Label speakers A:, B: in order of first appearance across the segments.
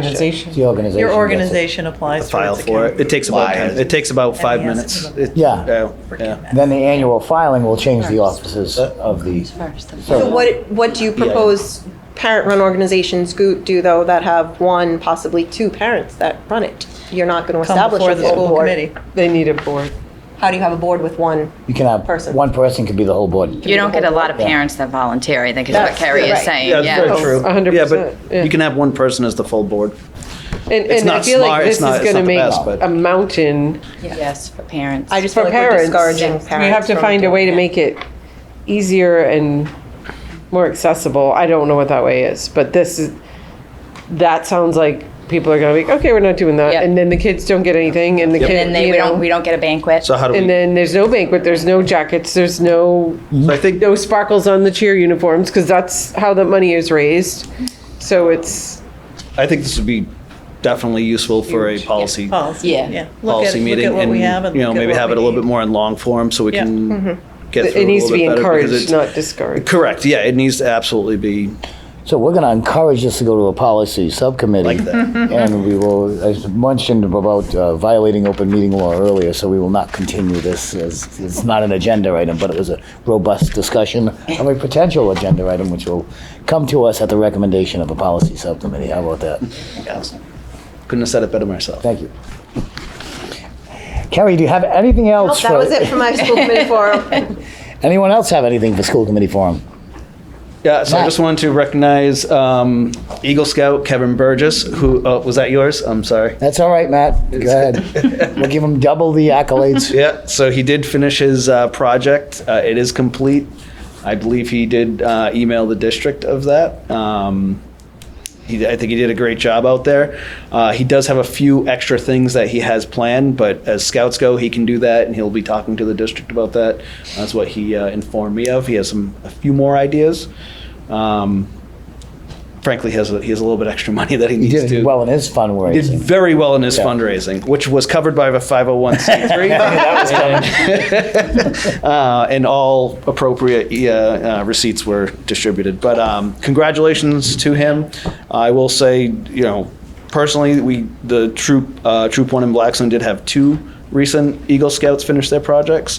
A: organization.
B: The organization.
C: Your
B: gets it.
C: organization applies to
D: File
C: its
D: for it. It
C: account.
D: takes about,
E: Why?
D: ten- it takes about five
C: And he has
D: minutes.
C: to do it.
D: It- uh,
B: Yeah.
D: Yeah.
B: Then the annual filing will change the
A: First.
B: offices of the.
A: First.
F: So what, what do you propose parent-run organizations go- do, though, that have one, possibly two parents that run it? You're not going to
C: Come
F: establish
C: before
F: a
C: the
F: full
C: school
F: board.
C: committee.
A: They need a board.
F: How do you have a board with one?
B: You can have,
F: Person.
B: one person could be the whole board.
G: You don't get a lot of parents that volunteer, I think is what
F: That's-
G: Carrie is
F: right.
G: saying,
D: Yeah, that's very
G: yeah.
D: true.
A: a hundred
D: Yeah,
A: percent, yeah.
D: but you can have one person as the full board.
A: And,
D: It's
A: and I
D: not
A: feel
D: smart,
A: like
D: it's
A: this is
D: not- it's
A: going
D: not
A: to
D: the
A: make
D: best, but-
A: a mountain
G: Yes, for parents.
F: I just
A: for
F: feel like we're
A: parents.
F: discouraging parents.
A: We have to
F: from
A: find a
F: doing
A: way to
F: it.
A: make it easier and more accessible. I don't know what that way is, but this is, that sounds like people are going to be, okay, we're not doing that.
G: Yep.
A: And then the kids don't get anything and the
D: Yep.
A: kid,
G: And they,
A: you
G: we
A: know,
G: don't, we don't get a banquet.
D: So how do
A: and
D: we,
A: then there's no banquet, there's no jackets, there's no
D: so I think,
A: no sparkles on the cheer uniforms because that's how the money is raised. So it's
D: I think this would be definitely useful for a policy,
C: Policy,
G: Yeah.
C: yeah. Look at,
D: policy
C: look
D: meeting.
C: at what
D: and
C: we have and
D: You know,
C: look at
D: maybe
C: what
D: have
C: we
D: it a little
C: need.
D: bit more in long form so we
C: Yeah.
D: can get through
A: Mm-hmm. it
D: it a
A: needs to
D: little
A: be
D: bit better. because
A: encouraged,
D: it's-
A: not discouraged.
D: Correct, yeah, it needs to absolutely be
B: So we're going to encourage this to go to a policy subcommittee.
D: like that.
C: Mm-hmm.
B: And we will, I mentioned about uh, violating open meeting law earlier, so we will not continue this. as- It's not an agenda item, but it was a robust discussion of a potential agenda item, which will come to us at the recommendation of a policy subcommittee. How about that?
D: Yes. Couldn't have said it better myself.
B: Thank you. Carrie, do you have anything
F: Nope,
B: else?
F: That
B: for-
F: was it for my school committee forum.
B: Anyone else have anything for school committee forum?
D: Yeah, so I
B: Matt.
D: just wanted to recognize um, Eagle Scout Kevin Burgess, who, oh, was that yours? I'm sorry.
B: That's all right, Matt. Go ahead. We'll give him double the accolades.
D: Yeah, so he did finish his uh, project. Uh, it is complete. I believe he did uh, email the district of that. Um, he, I think he did a great job out there. Uh, he does have a few extra things that he has planned, but as scouts go, he can do that, and he'll be talking to the district about that. That's what he uh, informed me of. He has some a few more ideas. Um, frankly, he has a, he has a little bit extra money that he
B: He
D: needs
B: did
D: to.
B: well in his
D: did
B: fundraising.
D: very well in his
B: Yeah.
D: fundraising, which was covered by the 501c3. uh, and all appropriate uh, uh, receipts were distributed. But um, congratulations to him. I will say, you know, personally, we the troop uh, troop one in Blackstone did have two recent Eagle Scouts finish their projects.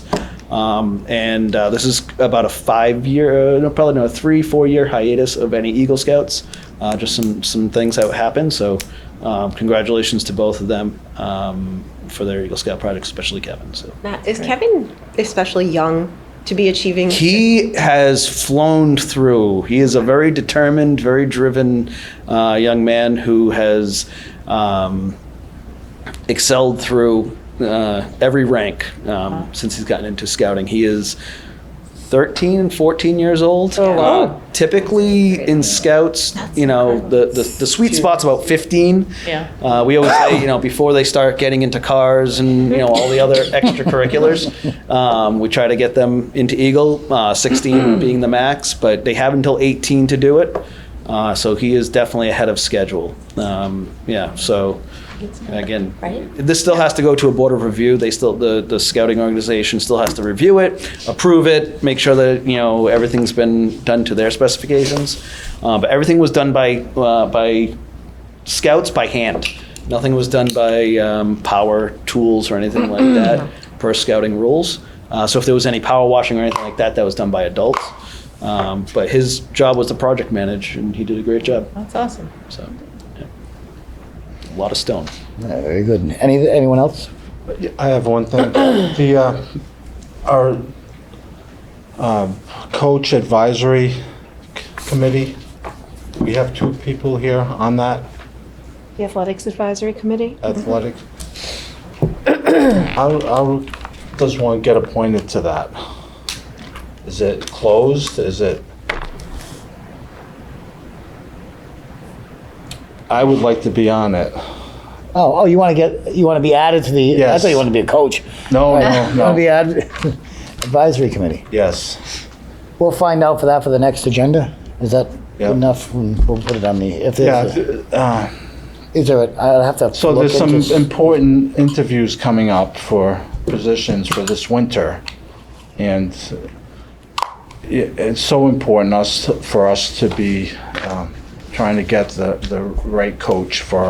D: Um, and uh, this is about a five-year, uh, no, probably no, a three, four-year hiatus of any Eagle Scouts. Uh, just some some things that happened. So, um, congratulations to both of them um, for their Eagle Scout projects, especially Kevin. So.
F: Now, Is Kevin especially young to be achieving?
D: He has flown through. He is a very determined, very driven uh, young man who has um, excelled through uh, every rank um, since he's gotten into scouting. He is 13 and 14 years old. Oh, wow. typically in scouts, you know, the, the, the sweet spot's about 15.
C: Yeah.
D: Uh, we always say, you know, before they start getting into cars and, you know, all the other extracurriculars, um, we try to get them into Eagle, uh, 16 being the max, but they have until 18 to do it. Uh, so he is definitely ahead of schedule. Um, yeah, so again, this still has to go to a board of review. They still, the, the scouting organization still has to review it, approve it, make sure that, you know, everything's been done to their specifications. Uh, but everything was done by, uh, by scouts by hand. Nothing was done by um, power tools or anything like that per scouting rules. Uh, so if there was any power washing or anything like that, that was done by adults. Um, but his job was to project manage, and he did a great job.
C: That's awesome.
D: So, yeah. a lot of stone.
B: Yeah, Very good. Any, anyone else?
E: I have one thing. The, uh, our um, coach advisory committee, we have two people here on that
H: The Athletics Advisory Committee?
E: athletic. How, how does one get appointed to that? Is it closed? Is it? I would like to be on it.
B: Oh, oh, you want to get, you want to be added to the, I
E: Yes.
B: thought you wanted to be a coach.
E: No, no,
B: You want to be
E: no.
B: added, advisory committee.
E: Yes.
B: We'll find out for that for the next agenda. Is that
E: Yeah.
B: good enough? Mm, We'll put it on the, if
E: Yeah.
B: there's, a-
E: uh,
B: is there, a- I'll have to.
E: So
B: look
E: there's some
B: into s-
E: important interviews coming up for positions for this winter. And i- it's so important us, for us to be um, trying to get the, the right coach for